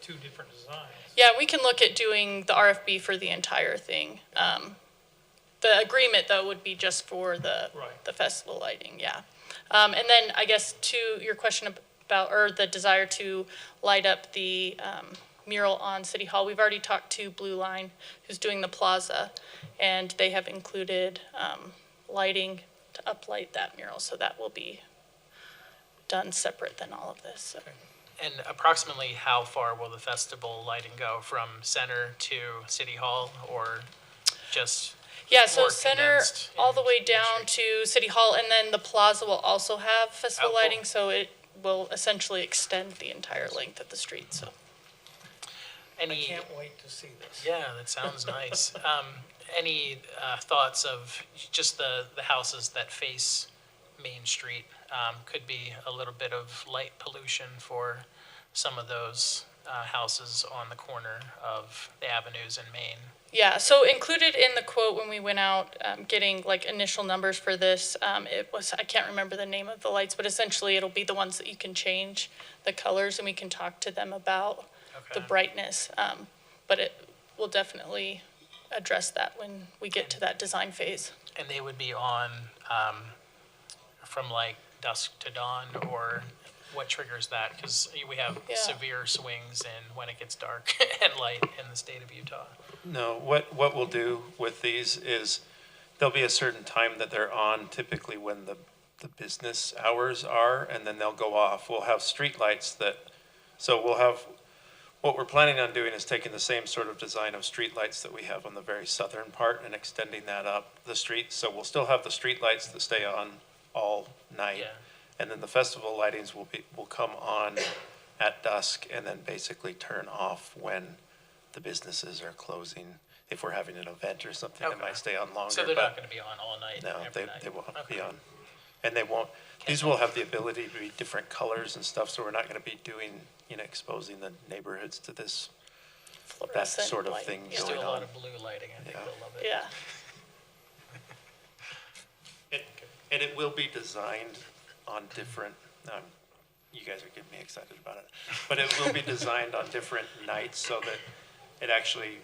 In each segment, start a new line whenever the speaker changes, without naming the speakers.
two different designs.
Yeah, we can look at doing the RFB for the entire thing. Um, the agreement though would be just for the,
Right.
the festival lighting, yeah. Um, and then I guess to your question ab- about, or the desire to light up the, um, mural on City Hall, we've already talked to Blue Line, who's doing the plaza, and they have included, um, lighting to uplight that mural, so that will be done separate than all of this, so.
And approximately how far will the festival lighting go from center to City Hall or just?
Yeah, so
or
center
condensed
all the
in
way
the
down to City Hall, and then the plaza will also have festival
Oh, cool.
lighting, so it will essentially extend the entire length of the street, so.
I
Any,
can't wait to see this.
yeah, that sounds nice. Um, any, uh, thoughts of just the, the houses that face Main Street? Um, could be a little bit of light pollution for some of those, uh, houses on the corner of the avenues in Maine.
Yeah, so included in the quote when we went out, um, getting like initial numbers for this, um, it was, I can't remember the name of the lights, but essentially it'll be the ones that you can change the colors, and we can talk to them about the
Okay.
brightness. Um, but it will definitely address that when we get to that design phase.
And they would be on um, from like dusk to dawn, or what triggers that? Because we have
Yeah.
severe swings in when it gets dark and light in the state of Utah.
No, what, what we'll do with these is, there'll be a certain time that they're on, typically when the, the business hours are, and then they'll go off. We'll have streetlights that, so we'll have, what we're planning on doing is taking the same sort of design of streetlights that we have on the very southern part and extending that up the street. So we'll still have the streetlights that stay on all night.
Yeah.
And then the festival lightings will be, will come on at dusk and then basically turn off when the businesses are closing. If we're having an event or something, it
Okay.
might stay on longer.
So they're not
but-
going to be on all night.
No,
every
they,
night.
they won't be
Okay.
on. And they won't, these will have the ability to be different colors and stuff, so we're not going to be doing, you know, exposing the neighborhoods to this.
Fluorescent
sort of
light,
thing
yeah.
Just do a
going
lot
on.
of blue lighting. I think
Yeah.
they'll love it.
Yeah.
And and it will be designed on different, um, you guys are getting me excited about it, but it will be designed on different nights so that it actually,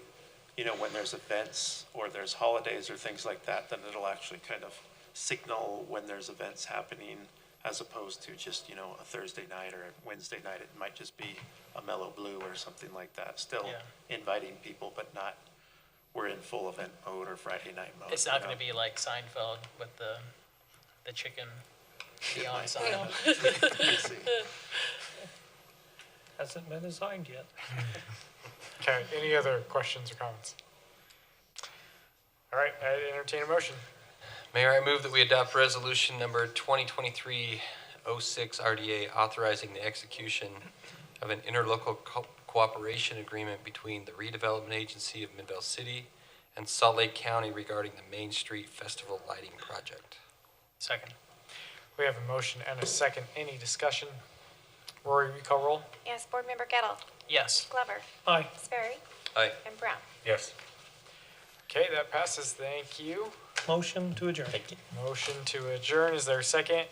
you know, when there's events or there's holidays or things like that, then it'll actually kind of signal when there's events happening as opposed to just, you know, a Thursday night or a Wednesday night. It might just be a mellow blue or something like that, still
Yeah.
inviting people, but not, we're in full event mode or Friday night mode.
It's
you
not
know?
going to be like Seinfeld with the the chicken beyond
No.
Seinfeld.
We'll see.
Hasn't been designed yet.
Okay, any other questions or comments? All right, I entertain a motion.
Mayor, I move that we adopt resolution number 2023-06 RDA authorizing the execution of an interlocal co- cooperation agreement between the redevelopment agency of Midvale City and Salt Lake County regarding the Main Street Festival Lighting Project.
Second.
We have a motion and a second. Any discussion? Rory, we call roll?
Yes, Board Member Gettle,
Yes.
Glover,
Aye.
Sperry,
Aye.
and Brown.
Yes. Okay, that passes. Thank you.
Motion to adjourn. Thank you.
Motion to adjourn. Is there a second?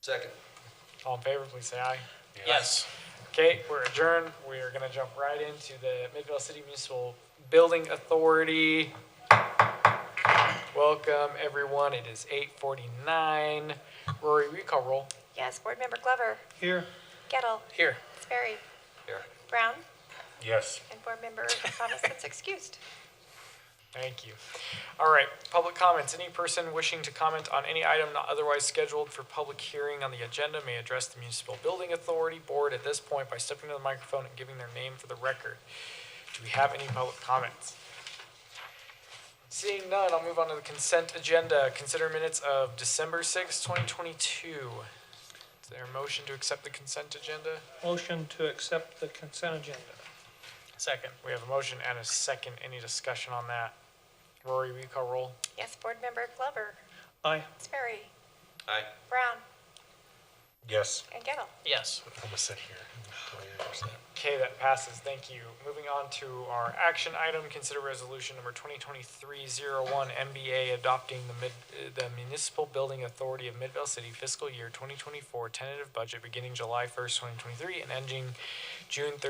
Second.
All in favor, please say aye.
Yes.
Okay, we're adjourned. We are gonna jump right into the Midvale City Municipal Building Authority. Welcome, everyone. It is eight forty-nine. Rory, we call roll.
Yes, Board Member Glover,
Here.
Gettle,
Here.
Sperry,
Here.
Brown,
Yes.
and Board Member Thomason's excused.
Thank you. All right, public comments. Any person wishing to comment on any item not otherwise scheduled for public hearing on the agenda may address the Municipal Building Authority Board at this point by stepping to the microphone and giving their name for the record. Do we have any public comments? Seeing none, I'll move on to the consent agenda. Consider minutes of December sixth, twenty 2022. Is there a motion to accept the consent agenda?
Motion to accept the consent agenda.
Second.
We have a motion and a second. Any discussion on that? Rory, will you call roll?
Yes, Board Member Glover,
Aye.
Sperry,
Aye.
Brown,
Yes.
and Gettle.
Yes.
I'm gonna sit here.
Okay, that passes, thank you. Moving on to our action item, consider resolution number 2023-01, MBA adopting the mid, uh, the Municipal Building Authority of Midvale City fiscal year 2024 tentative budget beginning July 1st, 2023 and ending June